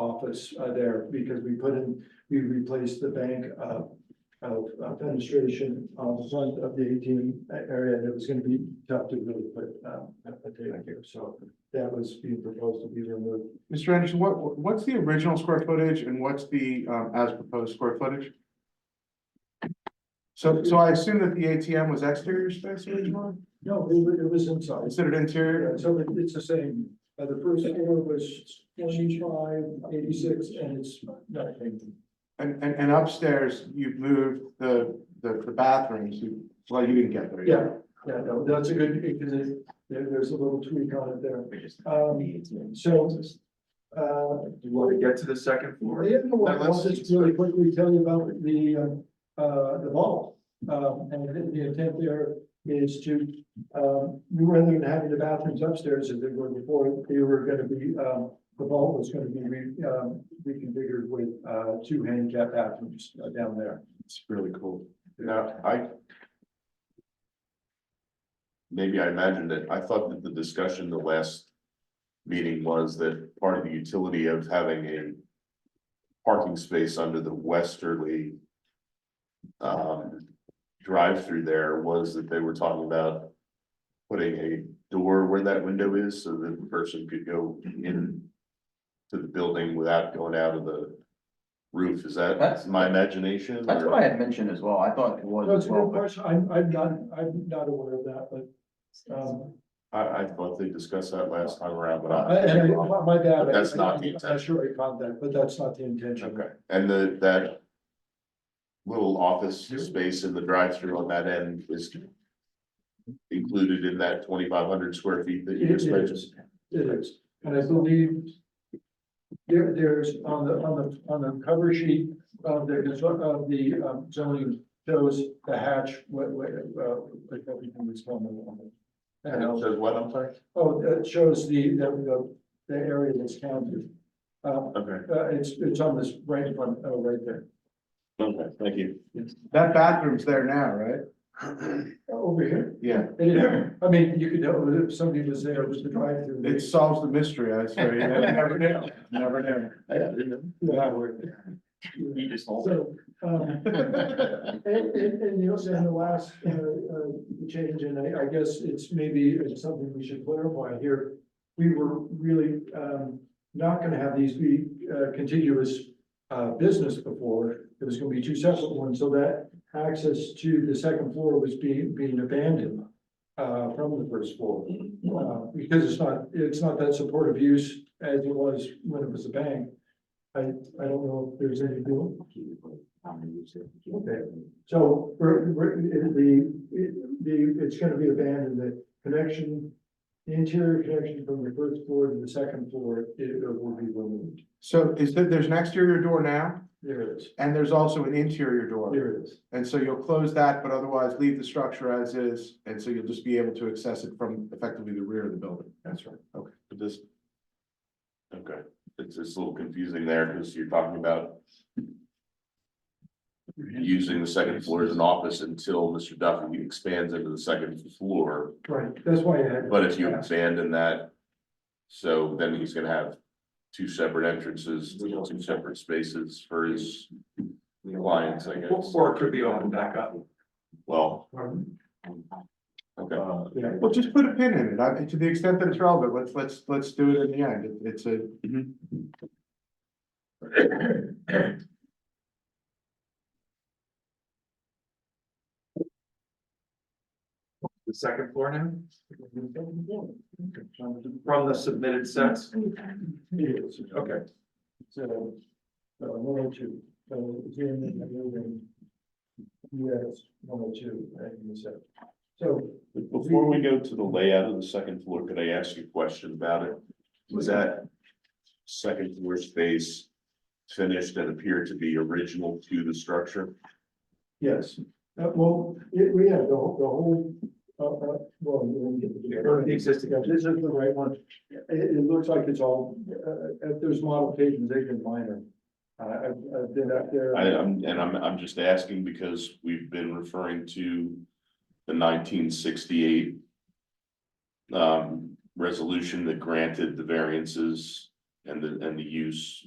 office uh, there because we put in, we replaced the bank uh, of uh, fenestration on the front of the ATM area and it was gonna be tough to really put um, a a table here. So that was being proposed to be removed. Mr. Anderson, what, what's the original square footage and what's the, um, as proposed square footage? So, so I assume that the ATM was exterior space originally, No, it was, it was inside. considered Yeah, interior? so it- it's the same. Uh, the first floor was twenty-five, eighty-six, and it's nothing. And, and, and upstairs, you've moved the, the, the bathrooms, you, well, you didn't get there. yet. Yeah, yeah, no, that's a good, because it- there, there's a little tweak on it there. Um, so, uh, You want to get to the second floor? Yeah, well, Now, I'll let's- just really quickly tell you about the, uh, uh, the vault. Um, and the- the intent there is to, um, rather than having the bathrooms upstairs as they were before, they were gonna be, um, the vault was gonna be re, um, reconfigured with, uh, two handicap bathrooms uh, down there. It's really cool. Now, I. Maybe I imagined it. I thought that the discussion the last. Meeting was that part of the utility of having a. Parking space under the westerly. Um, drive through there was that they were talking about. Putting a door where that window is so that the person could go in. To the building without going out of the. Roof, is That's- that my imagination? That's or- what I had mentioned as well. I thought it was That's as a good well, but question. I'm, I'm not, I'm not aware of that, but, um, I, I thought they discussed that last time around, but I- Uh, and I. I- my bad. But that's not the I'm intention. sure I caught that, but that's not the intention. Okay, and the, that. Little office space in the drive-through on that end is. Included in that twenty-five hundred square feet that you It just mentioned. is, it is, and I believe there, there's on the, on the, on the cover sheet of the, of the um, zoning shows the hatch, what, what, uh, like everything that's going on. And it And, uh, says what, I'm sorry? oh, that shows the, the, the the area that's counted. Uh, Okay, uh, it's, it's on this right front, uh, right there, okay, thank you. That bathroom's there now, right? Uh, over here. Yeah, It is. I mean, you could, know if somebody was there, it was the drive-through. it solves the mystery, I swear, you never knew, never knew. Yeah. you just hold it. So, um, and, and, and the also in the last, uh, uh, change, and I, I guess it's maybe it's something we should clarify here. We were really, um, not gonna have these be, uh, contiguous, uh, business before. It was gonna be two separate ones, so that access to the second floor was being, being abandoned, uh, from the first floor. Uh, because it's not, it's not that supportive use as it was when it was a bank. I, I don't know if there's any doing. Okay, so we're, we're, it- the, it- the, it's gonna be abandoned, the connection, the interior connection from the first floor to the second floor, it will be removed. So is there, there's an exterior door now, There it is, and there's also an interior door. there it is. And so you'll close that, but otherwise leave the structure as is, and so you'll just be able to access it from effectively the rear of the building. That's right. But this. Okay, it's, it's a little confusing there because you're talking about. Using the second floor as an office until Mr. Duffy expands into the second floor. Right, that's why I had. But if you abandon that, so then he's gonna have two separate entrances, two separate spaces for his clients, I guess. Or it could be opened back up. Well, Pardon? okay, Uh, Yeah, Well, just put a pin in it, I, to the extent that it's relevant, let's, let's, let's do it in the end, It- it's a. The second floor now? From the submitted sets? it is. Okay. So, uh, one or two, so again, in the building. Yes, one or two, and so, so before we go to the layout of the second floor, could I ask you a question about it? Was that second floor space finished and appeared to be original to the structure? Yes, uh, well, it, we have the, whole- the whole, uh, uh, well, we didn't get to the- the existing, uh, this is the right one. It, it looks like it's all, uh, if there's modifications, they can minor. Uh, I've, I've been up there. I, I'm, and I'm, I'm just asking because we've been referring to the nineteen sixty-eight. Um, resolution that granted the variances and the, and the use